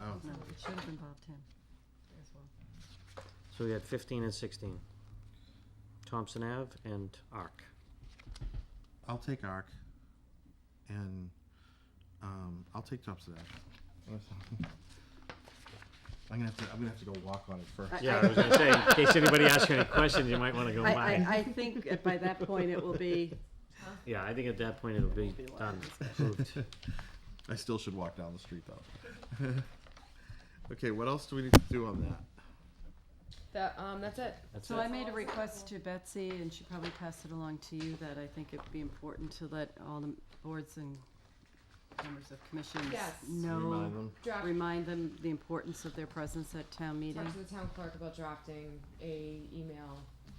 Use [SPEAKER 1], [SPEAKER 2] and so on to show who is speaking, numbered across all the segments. [SPEAKER 1] Oh.
[SPEAKER 2] No, it should have involved him as well.
[SPEAKER 3] So we had fifteen and sixteen. Thompson Ave and Arc.
[SPEAKER 1] I'll take ARC, and um, I'll take Thompson Ave. I'm gonna have to. I'm gonna have to go walk on it first.
[SPEAKER 2] I-
[SPEAKER 3] Yeah, I was gonna say, in case anybody asks you any questions, you might wanna go
[SPEAKER 2] I, I,
[SPEAKER 3] by.
[SPEAKER 2] I think at- by that point, it will be,
[SPEAKER 3] Yeah, I think at that point it'll be
[SPEAKER 2] Won't be a lot
[SPEAKER 3] done,
[SPEAKER 2] of
[SPEAKER 3] approved.
[SPEAKER 1] I still should walk down the street though. okay, what else do we need to do on that?
[SPEAKER 4] That, um, that's it.
[SPEAKER 3] That's
[SPEAKER 2] so I
[SPEAKER 3] it.
[SPEAKER 2] made a request to Betsy, and she probably passed it along to you, that I think it'd be important to let all the boards and members of commissions
[SPEAKER 4] Yes.
[SPEAKER 2] know,
[SPEAKER 1] Remind them.
[SPEAKER 4] Draft,
[SPEAKER 2] remind them the importance of their presence at town meeting
[SPEAKER 4] talk to the town clerk about drafting a email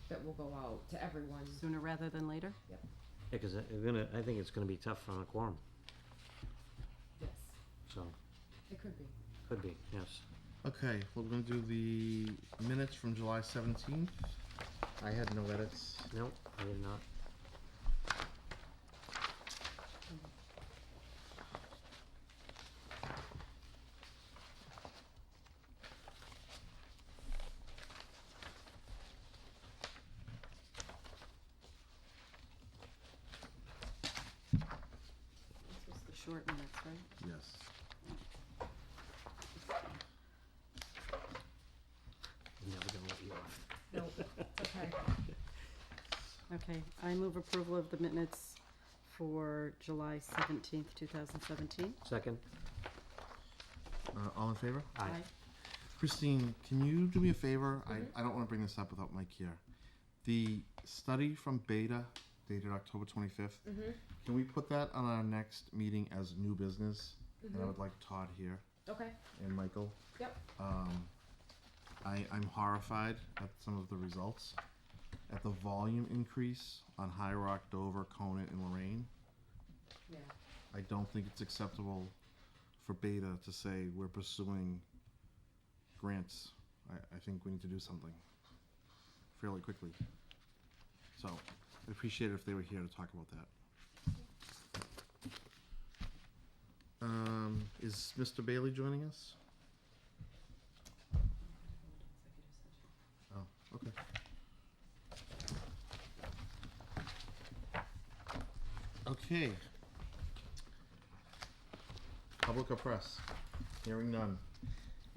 [SPEAKER 4] that will go out to everyone.
[SPEAKER 2] sooner rather than later.
[SPEAKER 3] Yeah, cause it- it's gonna, I think it's gonna be tough on a quorum,
[SPEAKER 4] Yes,
[SPEAKER 3] so,
[SPEAKER 4] it could be.
[SPEAKER 3] could be, yes.
[SPEAKER 1] Okay, we're gonna do the minutes from July 17th. I had no edits.
[SPEAKER 3] Nope, I did not.
[SPEAKER 2] This was the short minutes, right?
[SPEAKER 1] Yes.
[SPEAKER 3] I'm never gonna let you off.
[SPEAKER 4] Nope, it's okay.
[SPEAKER 2] Okay, I move approval of the minutes for July seventeenth, two thousand seventeen.
[SPEAKER 3] Second?
[SPEAKER 1] Uh, all in favor?
[SPEAKER 3] Aye.
[SPEAKER 1] Christine, can you do me a favor? I, I don't want to bring this up without Mike here. The study from Beta, dated October 25th,
[SPEAKER 4] Mhm.
[SPEAKER 1] can we put that on our next meeting as new business? And I
[SPEAKER 4] Mhm.
[SPEAKER 1] would like Todd here
[SPEAKER 4] Okay,
[SPEAKER 1] and Michael.
[SPEAKER 4] Yep.
[SPEAKER 1] Um, I, I'm horrified at some of the results, at the volume increase on High Rock, Dover, Conant, and Lorraine.
[SPEAKER 4] yeah.
[SPEAKER 1] I don't think it's acceptable for Beta to say we're pursuing grants. I, I think we need to do something fairly quickly. So I'd appreciate it if they were here to talk about that. Um, is Mr. Bailey joining us? Oh, okay. Okay. Public or press? Hearing none.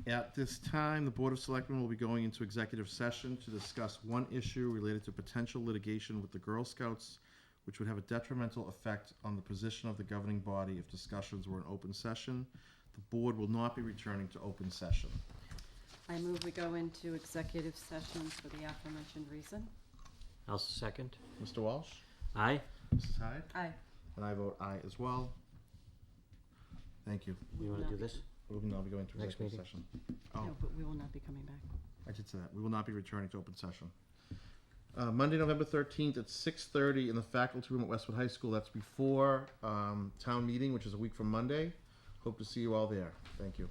[SPEAKER 1] At this time, the Board of Selectmen will be going into executive session to discuss one issue related to potential litigation with the Girl Scouts, which would have a detrimental effect on the position of the governing body if discussions were in open session. The board will not be returning to open session.
[SPEAKER 2] I move we go into executive session for the aforementioned reason.
[SPEAKER 3] I'll second.
[SPEAKER 1] Mr. Walsh?
[SPEAKER 3] Aye?
[SPEAKER 1] Mrs. Hyde?
[SPEAKER 2] Aye.
[SPEAKER 1] And I vote aye as well. Thank you.
[SPEAKER 2] We
[SPEAKER 3] You
[SPEAKER 2] will
[SPEAKER 3] wanna
[SPEAKER 2] not
[SPEAKER 3] do
[SPEAKER 2] be-
[SPEAKER 3] this?
[SPEAKER 1] We will now be going to
[SPEAKER 3] Next
[SPEAKER 1] executive
[SPEAKER 3] meeting.
[SPEAKER 1] session. Oh.
[SPEAKER 2] No, but we will not be coming back.
[SPEAKER 1] I did say that. We will not be returning to open session. Uh, Monday, November thirteenth at six thirty in the faculty room at Westwood High School. That's before um, town meeting, which is a week from Monday. Hope to see you all there. Thank you.